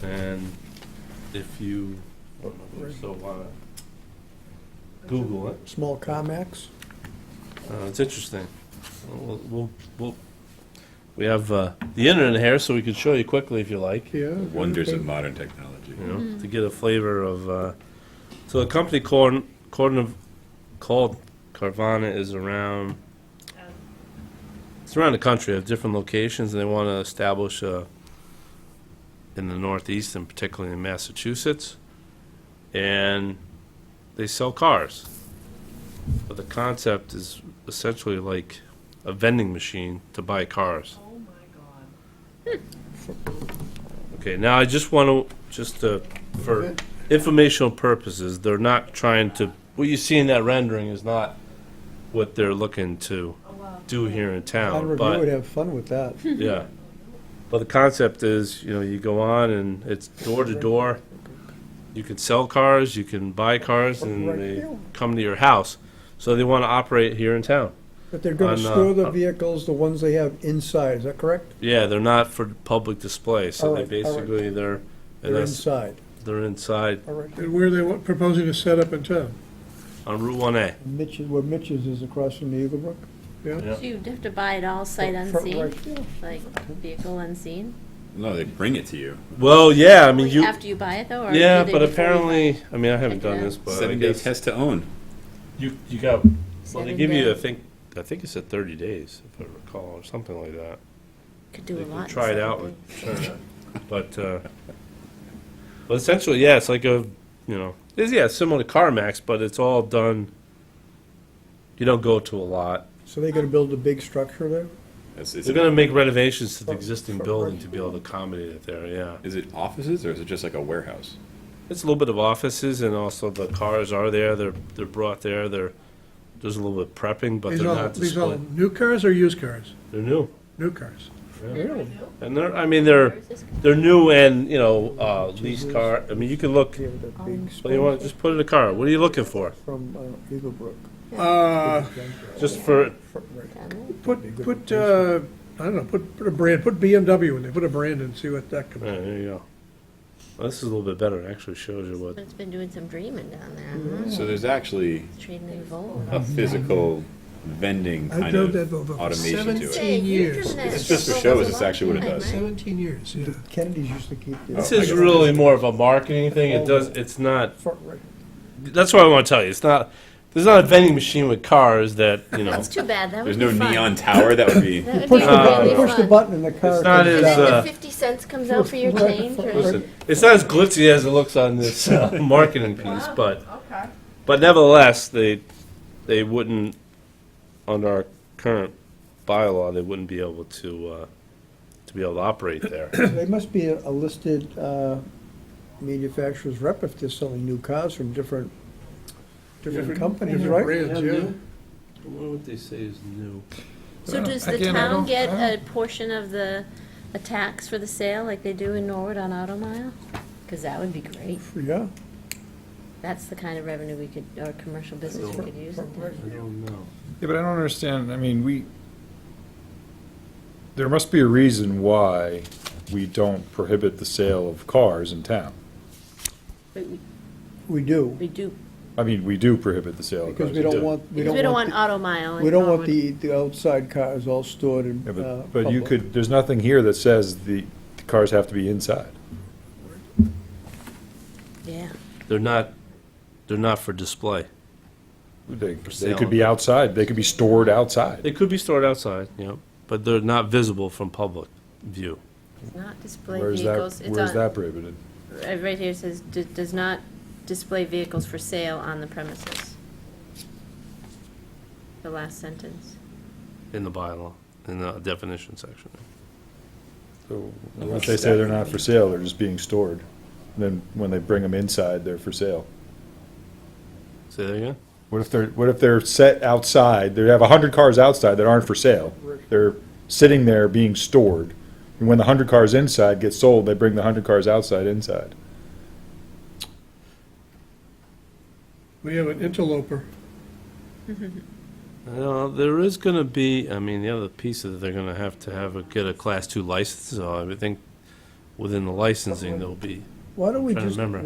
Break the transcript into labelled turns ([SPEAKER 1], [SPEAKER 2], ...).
[SPEAKER 1] And if you so want to Google it,
[SPEAKER 2] Small Comex?
[SPEAKER 1] uh, it's interesting. We'll, we'll, we'll, we have uh, the internet here, so we can show you quickly if you like, you
[SPEAKER 2] Yeah.
[SPEAKER 3] Wonders of modern technology.
[SPEAKER 1] know, to get a flavor of. Uh, so a company called called called Carvana is around. It's around the country of different locations, and they want to establish uh, in the Northeast and particularly in Massachusetts. And they sell cars. But the concept is essentially like a vending machine to buy cars.
[SPEAKER 4] Oh my
[SPEAKER 1] Okay, now I just want to, just to, for informational purposes, they're not trying to, what you see in that rendering is not what they're looking to
[SPEAKER 4] god. Oh wow.
[SPEAKER 1] do here in
[SPEAKER 2] I'd
[SPEAKER 1] town,
[SPEAKER 2] review
[SPEAKER 1] but,
[SPEAKER 2] would have fun with that.
[SPEAKER 1] yeah. But the concept is, you know, you go on and it's door to door. You can sell cars, you can buy cars, and Hmm, they come to your house. So they want to operate here in town.
[SPEAKER 2] But they're gonna
[SPEAKER 1] On, uh,
[SPEAKER 2] store the
[SPEAKER 1] on-
[SPEAKER 2] vehicles, the ones they have inside, is that correct?
[SPEAKER 1] Yeah, they're not for public display, so they
[SPEAKER 2] Alright, alright.
[SPEAKER 1] basically, they're, and
[SPEAKER 2] They're
[SPEAKER 1] that's,
[SPEAKER 2] inside.
[SPEAKER 1] they're inside
[SPEAKER 2] All right.
[SPEAKER 5] And where they wa- proposing to set up in town?
[SPEAKER 1] on Route one A.
[SPEAKER 2] Mitch's, where Mitch's is across from the Eaglebrook?
[SPEAKER 1] Yeah.
[SPEAKER 6] So you'd have to buy it all sight
[SPEAKER 2] Front- front
[SPEAKER 6] unseen,
[SPEAKER 2] right, yeah.
[SPEAKER 6] like vehicle unseen,
[SPEAKER 3] No, they bring it to you.
[SPEAKER 1] Well, yeah, I mean, you,
[SPEAKER 6] after you buy it though, or?
[SPEAKER 1] yeah,
[SPEAKER 6] do they
[SPEAKER 1] but
[SPEAKER 6] before you buy it?
[SPEAKER 1] apparently, I mean, I haven't
[SPEAKER 6] Check it
[SPEAKER 1] done
[SPEAKER 6] out.
[SPEAKER 1] this, but I
[SPEAKER 3] Seven day
[SPEAKER 1] guess,
[SPEAKER 3] test to own.
[SPEAKER 1] you, you got, well, they
[SPEAKER 6] Seven
[SPEAKER 1] give you, I
[SPEAKER 6] day.
[SPEAKER 1] think, I think it's at thirty days, if I recall, or something like that.
[SPEAKER 6] Could do a
[SPEAKER 1] They
[SPEAKER 6] lot.
[SPEAKER 1] can
[SPEAKER 6] in
[SPEAKER 1] try it
[SPEAKER 6] seven
[SPEAKER 1] out,
[SPEAKER 6] days.
[SPEAKER 1] with- sure. but, uh, but essentially, yeah, it's like a, you know, it's, yeah, similar to CarMax, but it's all done, you don't go to a lot.
[SPEAKER 2] So they're gonna build a big structure there?
[SPEAKER 3] Is, is,
[SPEAKER 1] They're
[SPEAKER 3] it,
[SPEAKER 1] gonna make renovations to the existing building to be able to accommodate it there, yeah.
[SPEAKER 3] is it offices or is it just like a warehouse?
[SPEAKER 1] It's a little bit of offices and also the cars are there, they're, they're brought there, they're, there's a little bit of prepping, but
[SPEAKER 5] These
[SPEAKER 1] they're
[SPEAKER 5] all,
[SPEAKER 1] not
[SPEAKER 5] these all
[SPEAKER 1] displayed.
[SPEAKER 5] new cars or used cars?
[SPEAKER 1] They're new.
[SPEAKER 5] New cars.
[SPEAKER 2] Really?
[SPEAKER 1] And they're, I mean, they're, they're new and, you know, uh, leased car, I mean, you can look,
[SPEAKER 2] Yeah, with that big
[SPEAKER 1] well, you want,
[SPEAKER 2] space
[SPEAKER 1] just put it in a car, what are you looking for?
[SPEAKER 2] From uh, Eaglebrook.
[SPEAKER 5] Uh,
[SPEAKER 1] Just for,
[SPEAKER 2] Front right.
[SPEAKER 5] put, put, uh, I don't know, put, put a brand, put BMW in there, put a brand and see what that comes.
[SPEAKER 1] Yeah, there you go. Well, this is a little bit better, it actually shows you
[SPEAKER 6] But
[SPEAKER 1] what,
[SPEAKER 6] it's been doing some dreaming down there, huh?
[SPEAKER 3] So there's actually
[SPEAKER 6] trading in Volvo.
[SPEAKER 1] Mm-hmm.
[SPEAKER 3] a physical vending
[SPEAKER 5] I
[SPEAKER 3] kind
[SPEAKER 5] drove
[SPEAKER 3] of
[SPEAKER 5] that Volvo for
[SPEAKER 3] automation to it.
[SPEAKER 6] Say, you've
[SPEAKER 5] seventeen years.
[SPEAKER 6] driven that
[SPEAKER 3] It's just for
[SPEAKER 6] Volvo
[SPEAKER 3] show,
[SPEAKER 6] a
[SPEAKER 3] is this
[SPEAKER 6] lot,
[SPEAKER 3] actually what it
[SPEAKER 6] right,
[SPEAKER 3] does?
[SPEAKER 6] Mike?
[SPEAKER 5] Seventeen years, yeah.
[SPEAKER 2] The Kennedys used to keep their
[SPEAKER 1] this
[SPEAKER 3] Oh, I
[SPEAKER 1] is
[SPEAKER 3] guess-
[SPEAKER 1] really more of a marketing thing, it does, it's not,
[SPEAKER 2] front right.
[SPEAKER 1] that's what I wanna tell you, it's not, there's not a vending machine with cars that, you know.
[SPEAKER 6] That's too bad, that would
[SPEAKER 3] There's
[SPEAKER 6] be
[SPEAKER 3] no
[SPEAKER 6] fun.
[SPEAKER 3] neon tower that would be.
[SPEAKER 6] That would be
[SPEAKER 2] Push the,
[SPEAKER 6] really
[SPEAKER 2] you push the
[SPEAKER 6] fun.
[SPEAKER 2] button and the car.
[SPEAKER 1] not
[SPEAKER 2] comes
[SPEAKER 1] as,
[SPEAKER 2] down.
[SPEAKER 6] And then
[SPEAKER 1] uh,
[SPEAKER 6] the fifty cents comes out for your
[SPEAKER 2] Right,
[SPEAKER 6] change,
[SPEAKER 2] front
[SPEAKER 6] or,
[SPEAKER 1] Listen, it's not as glitzy as it looks on this uh, marketing piece,
[SPEAKER 4] Wow.
[SPEAKER 1] but
[SPEAKER 4] Okay.
[SPEAKER 1] but nevertheless, they they wouldn't under our current bylaw they wouldn't be able to uh, to be able to operate there.
[SPEAKER 2] They must be a a listed uh, manufacturer's rep if they're selling new cars from different, different
[SPEAKER 5] Different-
[SPEAKER 2] companies,
[SPEAKER 5] different
[SPEAKER 2] right?
[SPEAKER 5] brands, yeah.
[SPEAKER 1] what they say is new.
[SPEAKER 6] so does the
[SPEAKER 5] Again, I
[SPEAKER 6] town
[SPEAKER 5] don't-
[SPEAKER 6] get
[SPEAKER 5] I
[SPEAKER 6] a portion of the, a tax for the sale, like they do in Norwood on Auto Mile? Cause that would be great.
[SPEAKER 2] Yeah.
[SPEAKER 6] That's the kind of revenue we could, or commercial business we could use. in town.
[SPEAKER 1] I don't know.
[SPEAKER 7] Yeah, but I don't understand, I mean, we, there must be a reason why we don't prohibit the sale of cars in town.
[SPEAKER 6] But we-
[SPEAKER 2] We do,
[SPEAKER 6] we do,
[SPEAKER 7] I mean, we do prohibit the sale of cars.
[SPEAKER 2] because we don't want, we
[SPEAKER 6] because we
[SPEAKER 2] don't want,
[SPEAKER 6] auto mile.
[SPEAKER 2] the-
[SPEAKER 6] in
[SPEAKER 2] we don't want
[SPEAKER 6] Norwood.
[SPEAKER 2] the, the outside cars all stored in
[SPEAKER 7] Yeah,
[SPEAKER 2] uh,
[SPEAKER 7] but, but you
[SPEAKER 2] public.
[SPEAKER 7] could, there's nothing here that says the the cars have to be inside.
[SPEAKER 6] Yeah.
[SPEAKER 1] They're not they're not for display.
[SPEAKER 7] They, they
[SPEAKER 1] sale.
[SPEAKER 7] could be outside, they could be stored outside.
[SPEAKER 1] They could be stored outside, you know, but they're not visible from public view.
[SPEAKER 6] It's not display
[SPEAKER 7] Where's that,
[SPEAKER 6] vehicles, it's
[SPEAKER 7] where's
[SPEAKER 6] on, uh,
[SPEAKER 7] that prohibited?
[SPEAKER 6] right right here it says, "D- does not display vehicles for sale on the premises. The last sentence.
[SPEAKER 1] In the bylaw, in the definition section.
[SPEAKER 7] So, Unless they say they're not for sale, they're just being stored. Then when they bring them inside, they're for sale.
[SPEAKER 1] Say that again?
[SPEAKER 7] What if they're, what if they're set outside, they have a hundred cars outside that aren't for sale? They're sitting there being stored, and when the hundred cars inside get sold, they bring the hundred cars outside inside.
[SPEAKER 5] We have an interloper.
[SPEAKER 1] Well, there is going to be, I mean, the other piece is they're going to have to have, a- get a Class 2 license, so I would think within the licensing, there'll be
[SPEAKER 2] Why don't we
[SPEAKER 1] Trying to
[SPEAKER 2] just,
[SPEAKER 1] remember.